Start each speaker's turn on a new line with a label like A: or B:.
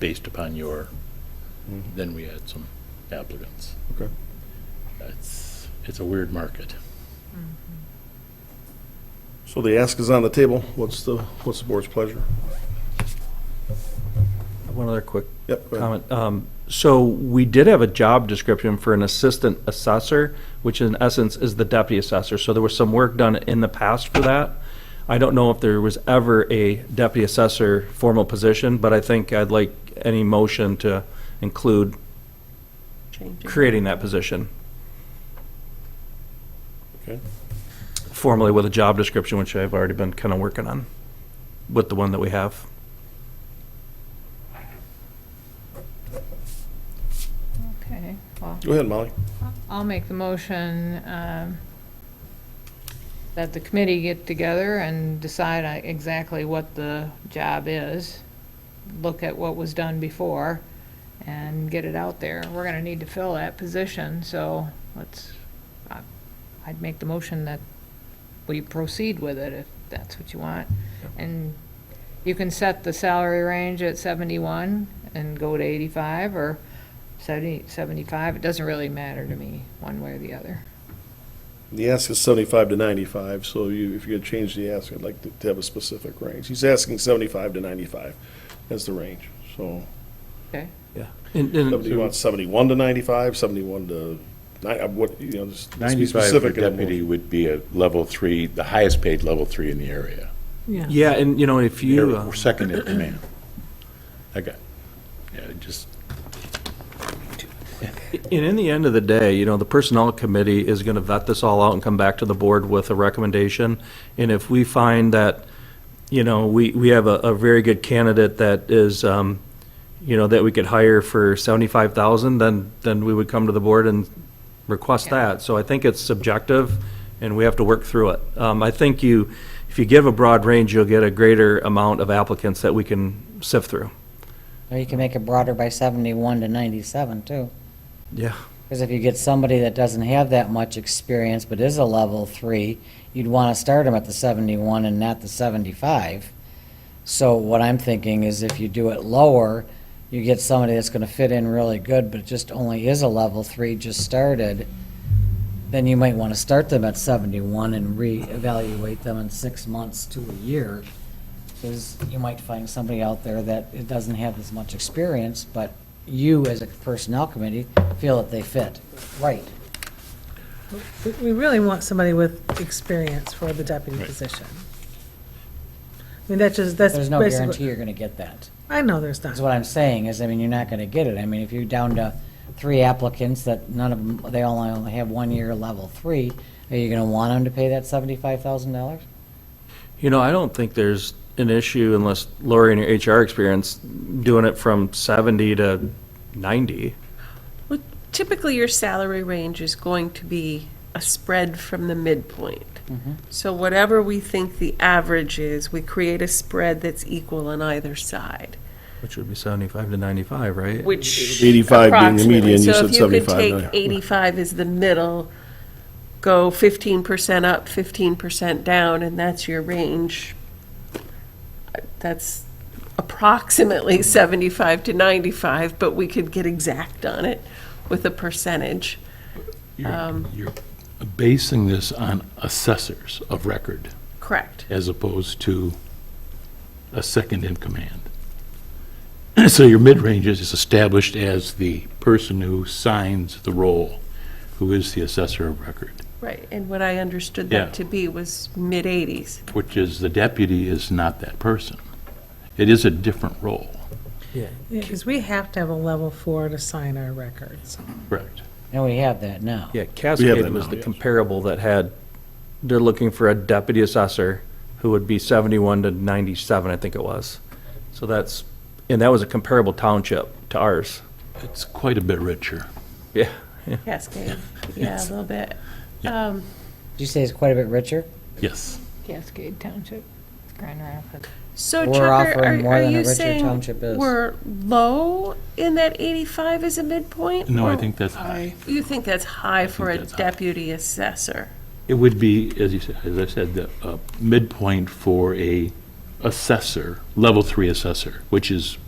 A: based upon your, then we had some applicants.
B: Mm-hmm. Okay.
A: It's, it's a weird market.
B: So the ask is on the table. What's the, what's the board's pleasure?
C: One other quick
B: Yep. go ahead.
C: comment. Um, So we did have a job description for an assistant assessor, which in essence is the deputy assessor. So there was some work done in the past for that. I don't know if there was ever a deputy assessor formal position, but I think I'd like any motion to include creating that position
B: Okay.
C: formally with a job description, which I've already been kind of working on with the one that we have.
D: Okay, well,
B: Go ahead, Molly.
D: I'll make the motion um, that the committee get together and decide uh, exactly what the job is, look at what was done before, and get it out there. We're going to need to fill that position, so let's, I- I'd make the motion that we proceed with it if that's what you want. And you can set the salary range at 71 and go to 85, or 70, 75, it doesn't really matter to me, one way or the other.
B: The ask is seventy-five to ninety-five, so you, if you're gonna change the ask, I'd like to- to have a specific range. He's asking seventy-five to ninety-five as the range, so.
D: Okay?
C: And- and-
B: Do you want seventy-one to ninety-five, seventy-one to ni- uh, what, you know, just be
A: Ninety-five for
B: specific in the motion.
A: deputy would be a level three, the highest paid level three in the area.
C: Yeah, and you know, if you. uh,
A: They're Second in command. I got, yeah, just,
C: And in the end of the day, you know, the Personnel Committee is going to vet this all out and come back to the board with a recommendation. And if we find that, you know, we, we have a, a very good candidate that is, um, you know, that we could hire for seventy-five thousand, then, then we would come to the board and request
D: Yeah.
C: that. So I think it's subjective, and we have to work through it. Um, I think you, if you give a broad range, you'll get a greater amount of applicants that we can sift through.
E: Or you can make it broader by 71 to 97, too.
C: Yeah.
E: Because if you get somebody that doesn't have that much experience but is a level three, you'd want to start them at the 71 and not the 75. So what I'm thinking is if you do it lower, you get somebody that's going to fit in really good but just only is a level three, just started, then you might want to start them at 71 and reevaluate them in six months to a year. Because you might find somebody out there that it doesn't have as much experience, but you as a personnel committee feel that they fit. Right.
F: We- We really want somebody with experience for the deputy
A: Right.
F: position. I mean, that's just, that's
E: There's no guarantee
F: basically,
E: you're gonna get that.
F: I know there's not.
E: That's what I'm saying, is, I mean, you're not gonna get it. I mean, if you're down to three applicants that none of them, they all only have one year level three, are you gonna want them to pay that seventy-five thousand dollars?
C: You know, I don't think there's an issue unless Lori and your HR experience doing it from 70 to 90.
G: Well, Typically, your salary range is going to be a spread from the midpoint.
B: Mm-hmm.
G: So whatever we think the average is, we create a spread that's equal on either side,
C: Which would be 75 to 95, right?
G: which.
B: 85 being the
G: approximately.
B: median, you said
G: So
B: 75,
G: if you
B: yeah.
G: could take 85 as the middle, go 15% up, 15% down, and that's your range. That's
B: Mm-hmm.
G: approximately 75 to 95, but we could get exact on it with a percentage.
A: you're you're basing this on assessors of record
G: Correct.
A: as opposed to a second in command. So your mid-range is established as the person who signs the role, who is the assessor of record.
G: Right, and what I understood
A: Yeah.
G: that to be was mid-eighties.
A: which is the deputy is not that person. It is a different role.
F: Because we have to have a level four to sign our records.
A: Correct.
E: And we have that now.
C: Yeah, Cascade
B: that
C: was
B: now,
C: the
B: yes.
C: comparable that had, they're looking for a deputy assessor who would be 71 to 97, I think it was. So that's, and that was a comparable township to ours.
A: It's quite a bit richer.
C: Yeah.
G: Cascade, yeah, a little bit. Um,
E: Did you say it's quite a bit richer?
A: Yes.
D: Cascade Township, Grand Rapids.
G: So
E: We're
G: Chuck, are-
E: offering
G: are
E: more
G: are
E: than a
G: you
E: Richard
G: saying
E: Township is.
G: we're low in that eighty-five as a midpoint?
A: No, I
G: Or
A: think that's high.
G: You think that's high for a
A: that's high.
G: deputy assessor?
A: It would be, as you said, as I said, the uh, midpoint for a assessor, level three assessor, which is